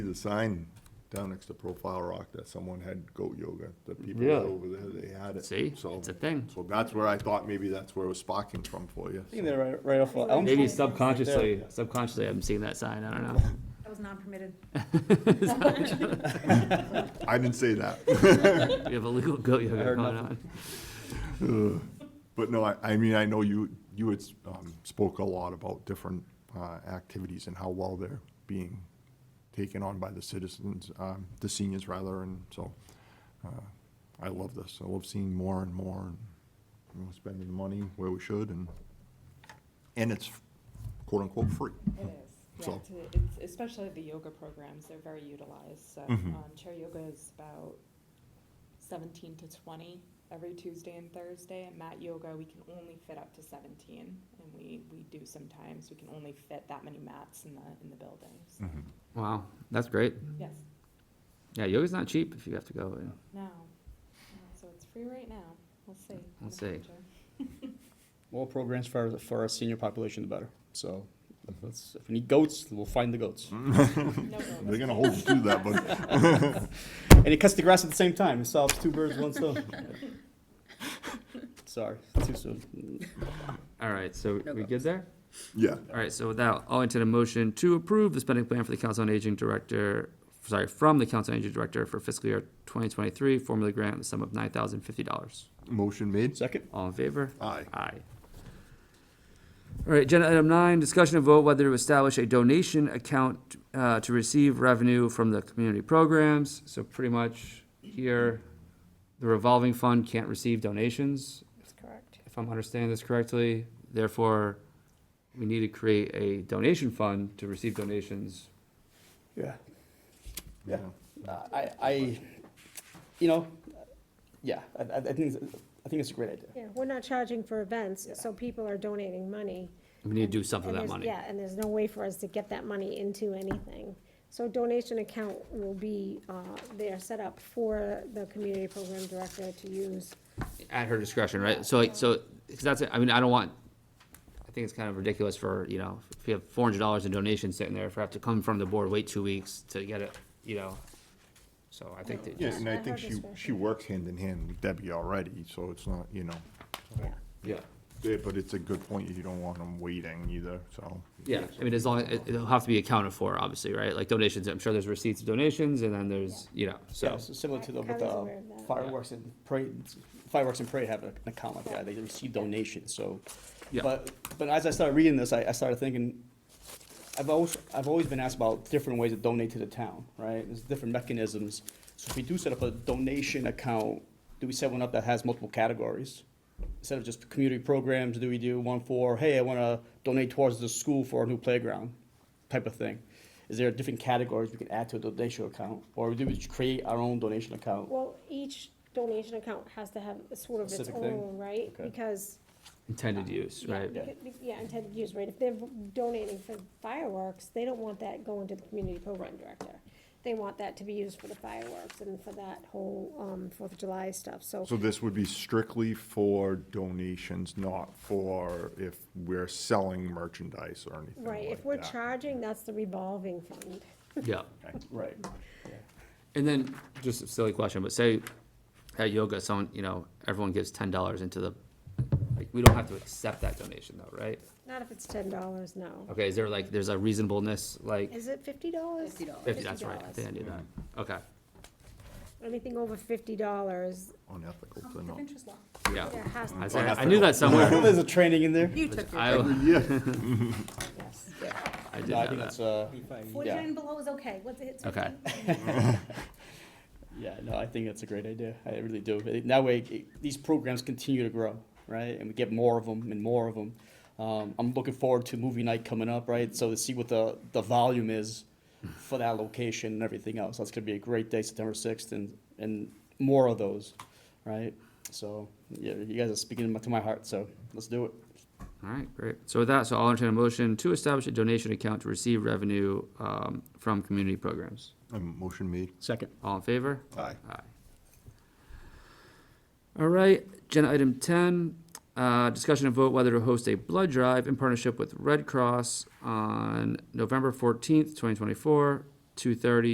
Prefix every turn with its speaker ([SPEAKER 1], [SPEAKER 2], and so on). [SPEAKER 1] the sign down next to Profile Rock that someone had goat yoga, the people
[SPEAKER 2] Really?
[SPEAKER 1] over there, they had it.
[SPEAKER 2] See?
[SPEAKER 1] So-
[SPEAKER 2] It's a thing.
[SPEAKER 1] So that's where I thought maybe that's where it was sparking from for you.
[SPEAKER 3] I think they're right, right off of Elm.
[SPEAKER 2] Maybe subconsciously, subconsciously, I'm seeing that sign. I don't know.
[SPEAKER 4] That was non-permitted.
[SPEAKER 1] I didn't say that.
[SPEAKER 2] We have a legal goat yoga
[SPEAKER 3] heard
[SPEAKER 2] going on.
[SPEAKER 3] nothing.
[SPEAKER 1] But no, I, I mean, I know you, you had um, spoke a lot about different uh, activities and how well they're being taken on by the citizens, um, the seniors rather, and so uh, I love this. I love seeing more and more and you know, spending the money where we should and, and it's quote unquote free.
[SPEAKER 5] It is, yeah,
[SPEAKER 1] So-
[SPEAKER 5] to- it's, especially the yoga programs, they're very utilized, so,
[SPEAKER 1] Mhm.
[SPEAKER 5] um, chair yoga is about seventeen to twenty every Tuesday and Thursday, and mat yoga, we can only fit up to seventeen, and we, we do sometimes, we can only fit that many mats in the, in the building, so,
[SPEAKER 2] Wow, that's great.
[SPEAKER 1] Mm-hmm.
[SPEAKER 5] yes,
[SPEAKER 2] Yeah, yoga's not cheap if you have to go. and-
[SPEAKER 5] no, No, so it's free right now, we'll see. in
[SPEAKER 2] We'll
[SPEAKER 5] the
[SPEAKER 2] see.
[SPEAKER 5] future.
[SPEAKER 3] More programs for, for our senior population, the better. So let's, if we need goats, we'll find the goats.
[SPEAKER 5] No worries.
[SPEAKER 1] They're gonna hold you to that, but
[SPEAKER 3] And it cuts the grass at the same time. It solves two birds, one stone. Sorry, too soon.
[SPEAKER 2] All right, so we good there?
[SPEAKER 1] yeah.
[SPEAKER 2] All right, so with that, I'll entertain a motion to approve the spending plan for the Council on Aging Director, sorry, from the Council on Aging Director for fiscal year twenty twenty-three, formula grant, in the sum of nine thousand fifty dollars.
[SPEAKER 1] Motion made.
[SPEAKER 3] Second?
[SPEAKER 2] All in favor?
[SPEAKER 1] Aye.
[SPEAKER 2] Aye. All right, agenda item nine, discussion and vote whether to establish a donation account uh, to receive revenue from the community programs. So pretty much here, the revolving fund can't receive donations,
[SPEAKER 4] That's correct.
[SPEAKER 2] if I'm understanding this correctly. Therefore, we need to create a donation fund to receive donations.
[SPEAKER 3] Yeah. Yeah. I, I, you know, yeah, I, I I think, it's- I think it's a great idea.
[SPEAKER 6] Yeah, we're not charging for events,
[SPEAKER 3] Yeah.
[SPEAKER 6] so people are donating money.
[SPEAKER 2] We need to do something
[SPEAKER 6] and
[SPEAKER 2] with that money.
[SPEAKER 6] there's- Yeah, and there's no way for us to get that money into anything. So donation account will be, uh, they are set up for the community program director to use.
[SPEAKER 2] at her discretion, right? So, like, so, because that's, it. I mean, I don't want, I think it's kind of ridiculous for, you know, if you have four hundred dollars in donations sitting there, for have to come from the board, wait two weeks to get it, you know? So I think that
[SPEAKER 1] Yeah,
[SPEAKER 2] just,
[SPEAKER 1] and I
[SPEAKER 6] At her
[SPEAKER 1] think she, she
[SPEAKER 6] discretion.
[SPEAKER 1] works hand in hand with Debbie already, so it's not, you know,
[SPEAKER 6] Yeah.
[SPEAKER 2] yeah,
[SPEAKER 1] Yeah, but it's a good point, you don't want them waiting either, so.
[SPEAKER 2] yeah, I mean, as long, it, it'll have to be accounted for, obviously, right? Like donations, I'm sure there's receipts of donations, and then there's, you know, so,
[SPEAKER 3] Yeah, so similar to the, with
[SPEAKER 6] Connie's aware
[SPEAKER 3] the
[SPEAKER 6] of that.
[SPEAKER 3] fireworks and parade, fireworks and parade have an account like that, they receive donations, so.
[SPEAKER 2] Yeah.
[SPEAKER 3] But, but as I started reading this, I, I started thinking, I've always, I've always been asked about different ways to donate to the town, right? There's different mechanisms, so if we do set up a donation account, do we set one up that has multiple categories? Instead of just community programs, do we do one for, hey, I wanna donate towards the school for a new playground, type of thing? Is there different categories we can add to a donation account, or do we just create our own donation account?
[SPEAKER 6] Well, each donation account has to have a sort of its
[SPEAKER 3] Specific thing?
[SPEAKER 6] own, right?
[SPEAKER 3] Okay.
[SPEAKER 6] Because
[SPEAKER 2] intended use,
[SPEAKER 6] Yeah,
[SPEAKER 2] right?
[SPEAKER 6] because- Yeah, intended use, right, if they're donating for fireworks, they don't want that going to the community program director. They want that to be used for the fireworks and for that whole, um, Fourth of July stuff, so,
[SPEAKER 1] So this would be strictly for donations, not for if we're selling merchandise or anything
[SPEAKER 6] right, if
[SPEAKER 1] like
[SPEAKER 6] we're
[SPEAKER 1] that.
[SPEAKER 6] charging, that's the revolving fund.
[SPEAKER 2] Yeah.
[SPEAKER 3] Right.
[SPEAKER 2] And then, just a silly question, but say at yoga, someone, you know, everyone gives ten dollars into the, like, we don't have to accept that donation though, right?
[SPEAKER 6] Not if it's ten dollars, no.
[SPEAKER 2] Okay, is there like, there's a reasonableness, like,
[SPEAKER 6] Is it fifty dollars?
[SPEAKER 4] $50.
[SPEAKER 2] fifty, that's right, I
[SPEAKER 6] $50.
[SPEAKER 2] think I knew that, okay,
[SPEAKER 3] Mm-hmm.
[SPEAKER 6] Anything over fifty dollars,
[SPEAKER 1] Unethical to
[SPEAKER 4] Conflict of
[SPEAKER 1] not.
[SPEAKER 4] interest law.
[SPEAKER 2] yeah.
[SPEAKER 6] there has
[SPEAKER 2] I
[SPEAKER 6] to
[SPEAKER 2] said, I knew that somewhere,
[SPEAKER 3] There's a training in there.
[SPEAKER 4] You took your.
[SPEAKER 2] I,
[SPEAKER 6] be, yes.
[SPEAKER 2] I did
[SPEAKER 3] No, I
[SPEAKER 2] know
[SPEAKER 3] think
[SPEAKER 2] that,
[SPEAKER 3] that's, uh, yeah,
[SPEAKER 4] Forty-nine below is okay, what's it, it's
[SPEAKER 2] Okay.
[SPEAKER 4] fifteen?
[SPEAKER 3] yeah, no, I think that's a great idea. I really do. It- That way, it- these programs continue to grow, right? And we get more of them and more of them. Um, I'm looking forward to movie night coming up, right? So to see what the, the volume is for that location and everything else. That's gonna be a great day, September sixth, and, and more of those, right? So, yeah, you guys are speaking to my heart, so let's do it.
[SPEAKER 2] alright, great, so with that, so I'll entertain a motion to establish a donation account to receive revenue, um, from community programs,
[SPEAKER 1] Um, Motion made.
[SPEAKER 3] Second.
[SPEAKER 2] all in favor?
[SPEAKER 1] Aye.
[SPEAKER 2] Aye. All right, agenda item ten, uh, discussion and vote whether to host a blood drive in partnership with Red Cross on November fourteenth, twenty twenty-four, two thirty